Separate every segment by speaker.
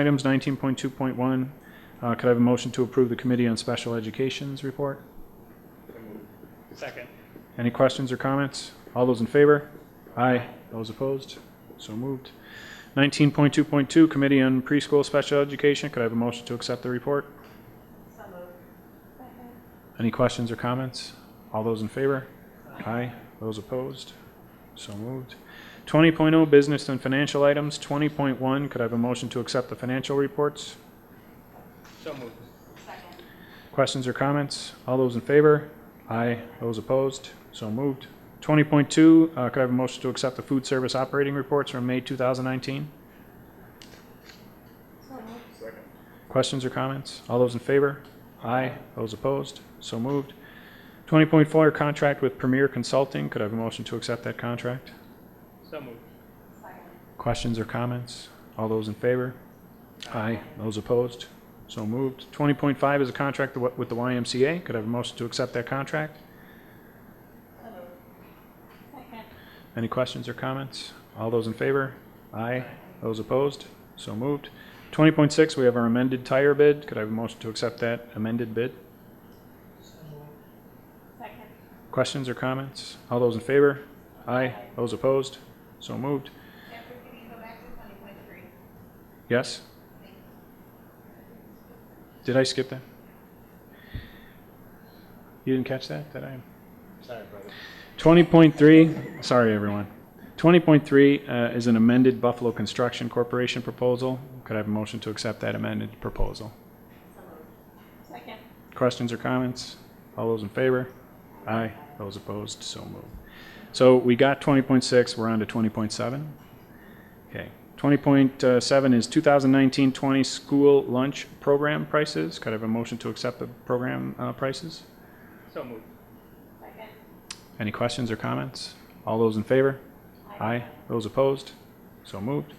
Speaker 1: Items 19.2.1, Uh, could I have a motion to approve the Committee on Special Education's report?
Speaker 2: Second.
Speaker 1: Any questions or comments? All those in favor? Aye. Those opposed? So moved. 19.2.2, Committee on Preschool Special Education, could I have a motion to accept the report? Any questions or comments? All those in favor? Aye. Those opposed? So moved. 20.0, Business and Financial Items. 20.1, could I have a motion to accept the financial reports?
Speaker 2: So moved.
Speaker 1: Questions or comments? All those in favor? Aye. Those opposed? So moved. 20.2, uh, could I have a motion to accept the food service operating reports from May 2019? Questions or comments? All those in favor? Aye. Those opposed? So moved. 20.4, contract with Premier Consulting. Could I have a motion to accept that contract?
Speaker 2: So moved.
Speaker 1: Questions or comments? All those in favor? Aye. Those opposed? So moved. 20.5 is a contract wi- with the YMCA. Could I have a motion to accept that contract? Any questions or comments? All those in favor? Aye. Those opposed? So moved. 20.6, we have our amended tire bid. Could I have a motion to accept that amended bid? Questions or comments? All those in favor? Aye. Those opposed? So moved.
Speaker 3: Jeffrey, can you go back to twenty point three?
Speaker 1: Yes? Did I skip that? You didn't catch that, did I?
Speaker 2: Sorry, brother.
Speaker 1: 20.3, sorry, everyone. 20.3 uh, is an amended Buffalo Construction Corporation proposal. Could I have a motion to accept that amended proposal?
Speaker 3: Second.
Speaker 1: Questions or comments? All those in favor? Aye. Those opposed? So moved. So we got 20.6, we're on to 20.7. Okay. 20.7 is 2019-20 school lunch program prices. Could I have a motion to accept the program uh, prices?
Speaker 2: So moved.
Speaker 3: Second.
Speaker 1: Any questions or comments? All those in favor? Aye. Those opposed? So moved.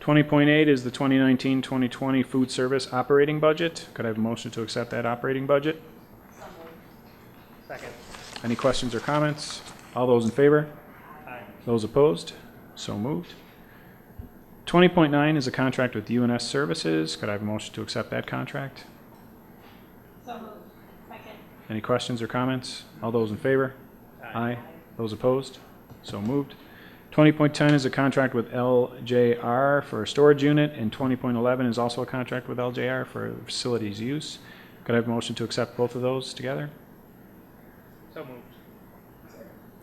Speaker 1: 20.8 is the 2019-2020 food service operating budget. Could I have a motion to accept that operating budget?
Speaker 3: So moved.
Speaker 2: Second.
Speaker 1: Any questions or comments? All those in favor?
Speaker 2: Aye.
Speaker 1: Those opposed? So moved. 20.9 is a contract with UNS Services. Could I have a motion to accept that contract?
Speaker 3: So moved. Second.
Speaker 1: Any questions or comments? All those in favor? Aye. Those opposed? So moved. 20.10 is a contract with LJR for a storage unit, and 20.11 is also a contract with LJR for facilities use. Could I have a motion to accept both of those together?
Speaker 2: So moved.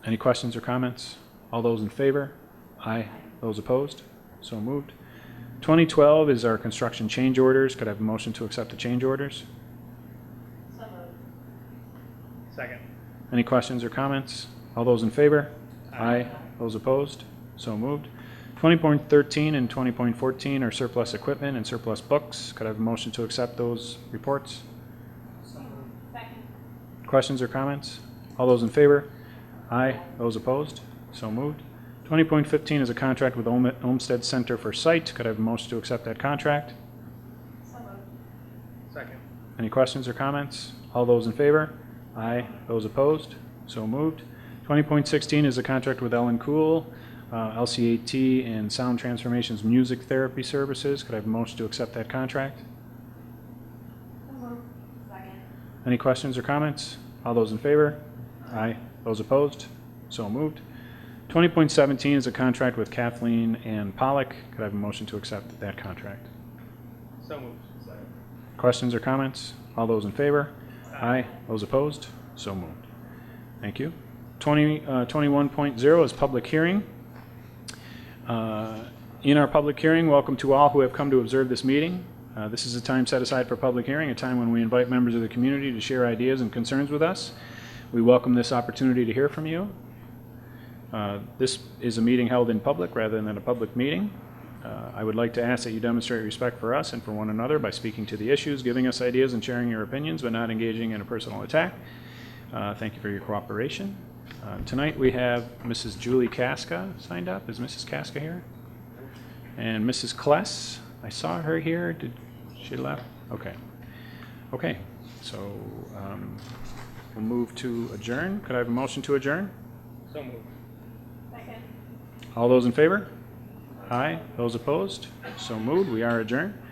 Speaker 1: Any questions or comments? All those in favor? Aye. Those opposed? So moved. 2012 is our construction change orders. Could I have a motion to accept the change orders?
Speaker 3: So moved.
Speaker 2: Second.
Speaker 1: Any questions or comments? All those in favor?
Speaker 2: Aye.
Speaker 1: Those opposed? So moved. 20.13 and 20.14 are surplus equipment and surplus books. Could I have a motion to accept those reports?
Speaker 3: Second.
Speaker 1: Questions or comments? All those in favor? Aye. Those opposed? So moved. 20.15 is a contract with Olm- Olmsted Center for Site. Could I have a motion to accept that contract?
Speaker 3: So moved.
Speaker 2: Second.
Speaker 1: Any questions or comments? All those in favor? Aye. Those opposed? So moved. 20.16 is a contract with Ellen Cool, uh, LCAT and Sound Transformations Music Therapy Services. Could I have a motion to accept that contract?
Speaker 3: So moved. Second.
Speaker 1: Any questions or comments? All those in favor? Aye. Those opposed? So moved. 20.17 is a contract with Kathleen and Pollock. Could I have a motion to accept that contract?
Speaker 2: So moved. Second.
Speaker 1: Questions or comments? All those in favor? Aye. Those opposed? So moved. Thank you. 20, uh, 21.0 is public hearing. Uh, In our public hearing, welcome to all who have come to observe this meeting. Uh, This is a time set aside for public hearing, a time when we invite members of the community to share ideas and concerns with us. We welcome this opportunity to hear from you. Uh, This is a meeting held in public rather than a public meeting. Uh, I would like to ask that you demonstrate respect for us and for one another by speaking to the issues, giving us ideas, and sharing your opinions, but not engaging in a personal attack. Uh, Thank you for your cooperation. Uh, Tonight, we have Mrs. Julie Casca signed up. Is Mrs. Casca here? And Mrs. Kless, I saw her here. Did she left? Okay. Okay, so um, we'll move to adjourn. Could I have a motion to adjourn?
Speaker 2: So moved.
Speaker 3: Second.
Speaker 1: All those in favor? Aye. Those opposed? So moved. We are adjourned.